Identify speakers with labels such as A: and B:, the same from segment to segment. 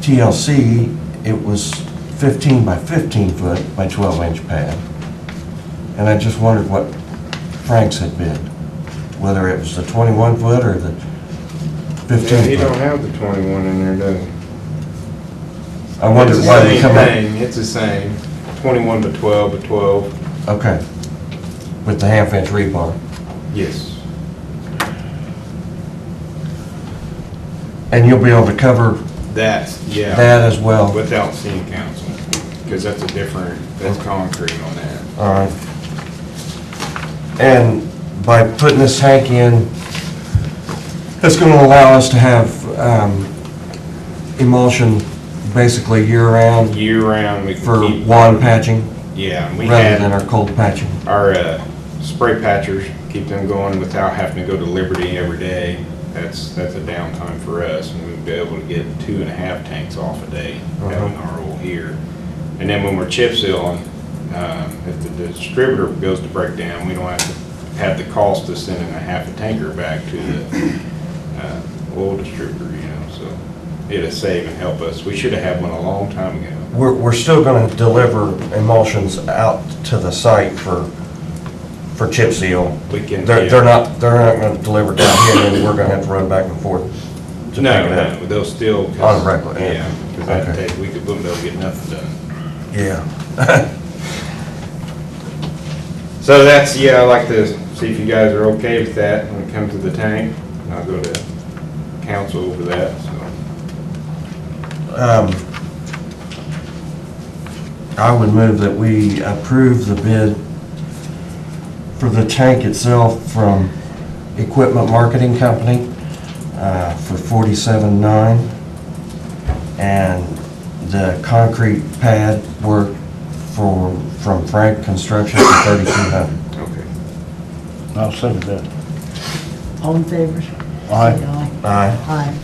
A: TLC, it was 15 by 15 foot by 12 inch pad. And I just wondered what Frank's had bid, whether it was the 21 foot or the
B: Yeah, he
A: 15
B: don't
A: foot.
B: have the twenty-one in there, does he?
A: I wondered
B: It's the
A: why they
B: same
A: come up.
B: thing, It's the same, twenty-one to twelve to twelve,
A: Okay. With the half inch rebar.
B: yes.
A: And you'll be able to cover
B: That's, yeah.
A: that as well?
B: Without seeing council, because that's a different, that's concrete on that.
A: All right. And by putting this tank in, it's going to allow us to have um, emulsion basically year-round
B: Year-round, we
A: for
B: can keep.
A: lawn patching
B: Yeah, and we
A: rather than
B: had
A: our cold patching.
B: our uh, spray patchers, keep them going without having to go to Liberty every day. That's, that's a downtime for us, and we'd be able to get two and a half tanks off a day, having our oil here. And then when we're chip sealing, um, if the distributor goes to break down, we don't have to have the cost of sending a half a tanker back to the uh, oil distributor, you know, so it'll save and help us. We should have had one a long time ago.
A: We're, we're still going to deliver emulsions out to the site for, for chip seal.
B: We can,
A: They're,
B: yeah.
A: they're not, they're not going to deliver down here and then we're going to have to run back and forth. to pick
B: No,
A: it
B: Oh,
A: up.
B: no, they'll still.
A: On record, yeah.
B: because that
A: Okay.
B: take, we could, boom, they'll get nothing done.
A: Yeah.
B: So that's, yeah, I'd like to see if you guys are okay with that when it comes to the tank. I'll go to council over that, so.
A: Um, I would move that we approve the bid for the tank itself from Equipment Marketing Company uh, for forty-seven nine. And the concrete pad work for, from Frank Construction for thirty-two hundred.
B: Okay.
C: I'll second that.
D: All in favor?
C: Aye.
D: Say
A: Aye.
D: Aye.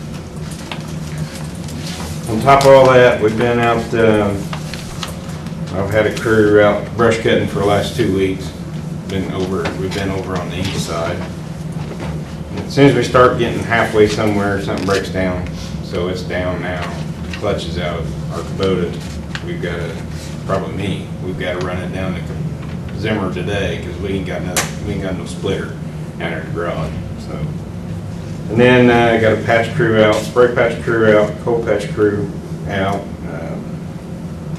B: On top of all that, we've been out, um, I've had a crew out brush cutting for the last two weeks. Been over, we've been over on the east side. As soon as we start getting halfway somewhere, something breaks down. So it's down now. Clutch is out. Our Kubota, we've got to, probably me, we've got to run it down to Zimmer today because we ain't got no, we ain't got no splitter out in the garage, so. And then uh, I got a patch crew out, spray patch crew out, cold patch crew out.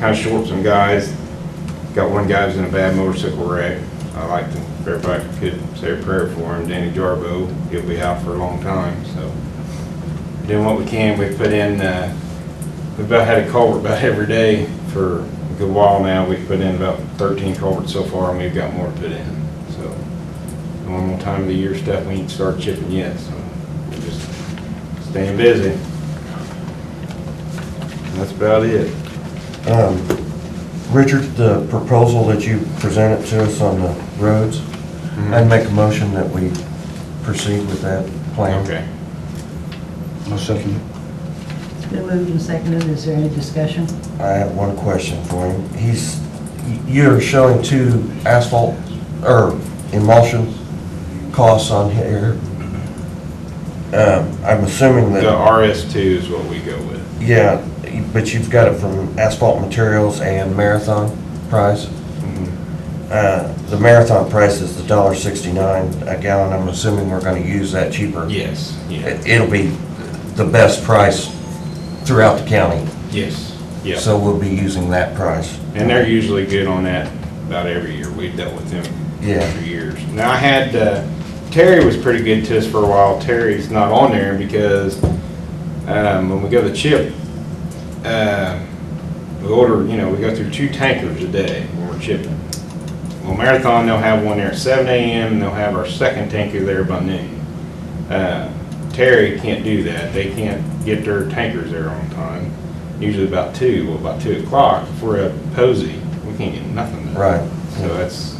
B: Kind of short some guys. Got one guy who's in a bad motorcycle wreck. I like to, if everybody could say a prayer for him, Danny Jarbo. He'll be out for a long time, so. Doing what we can. We've put in, uh, we've about had a culvert about every day for a good while now. We've put in about 13 culverts so far, and we've got more to put in, so normal time of the year stuff, we ain't start chipping yet, so we're just staying busy. And That's about it.
A: Um, Richard, the proposal that you presented to us on the roads, I'd make a motion that we proceed with that plan.
B: Okay.
C: I'll second it.
D: It's been moved and seconded. Is there any discussion?
A: I have one question for him. He's, you're showing two asphalt, or emulsion costs on here. Um, I'm assuming
B: The
A: that,
B: RS two is what we go with.
A: yeah, but you've got it from Asphalt Materials and Marathon Price.
B: Mm-hmm.
A: Uh, The Marathon price is the dollar sixty-nine a gallon. I'm assuming we're gonna use that cheaper.
B: Yes, yeah,
A: It- It'll be the best price throughout the county.
B: yes, yeah.
A: So we'll be using that price.
B: And they're usually good on that about every year. We've dealt with them
A: Yeah.
B: for years. Now, I had, uh, Terry was pretty good to us for a while. Terry's not on there because, um, when we go to chip, uh, we order, you know, we go through two tankers a day when we're chipping. Well, Marathon, they'll have one there at seven AM, and they'll have our second tanker there by noon. Uh, Terry can't do that, they can't get their tankers there on time, usually about two, well, about two o'clock, if we're at Posey, we can't get nothing done.
A: Right.
B: So that's,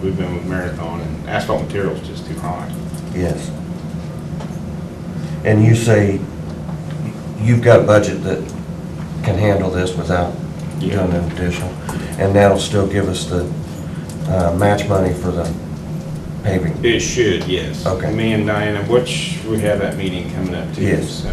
B: we've been with Marathon, and asphalt material's just too high.
A: Yes. And you say you've got a budget that can handle this without doing
B: Yeah.
A: an additional? And that'll still give us the uh, match money for the paving?
B: It should, yes.
A: Okay.
B: Me and Diana, which, we have that meeting coming up too.
A: Yes.
B: so.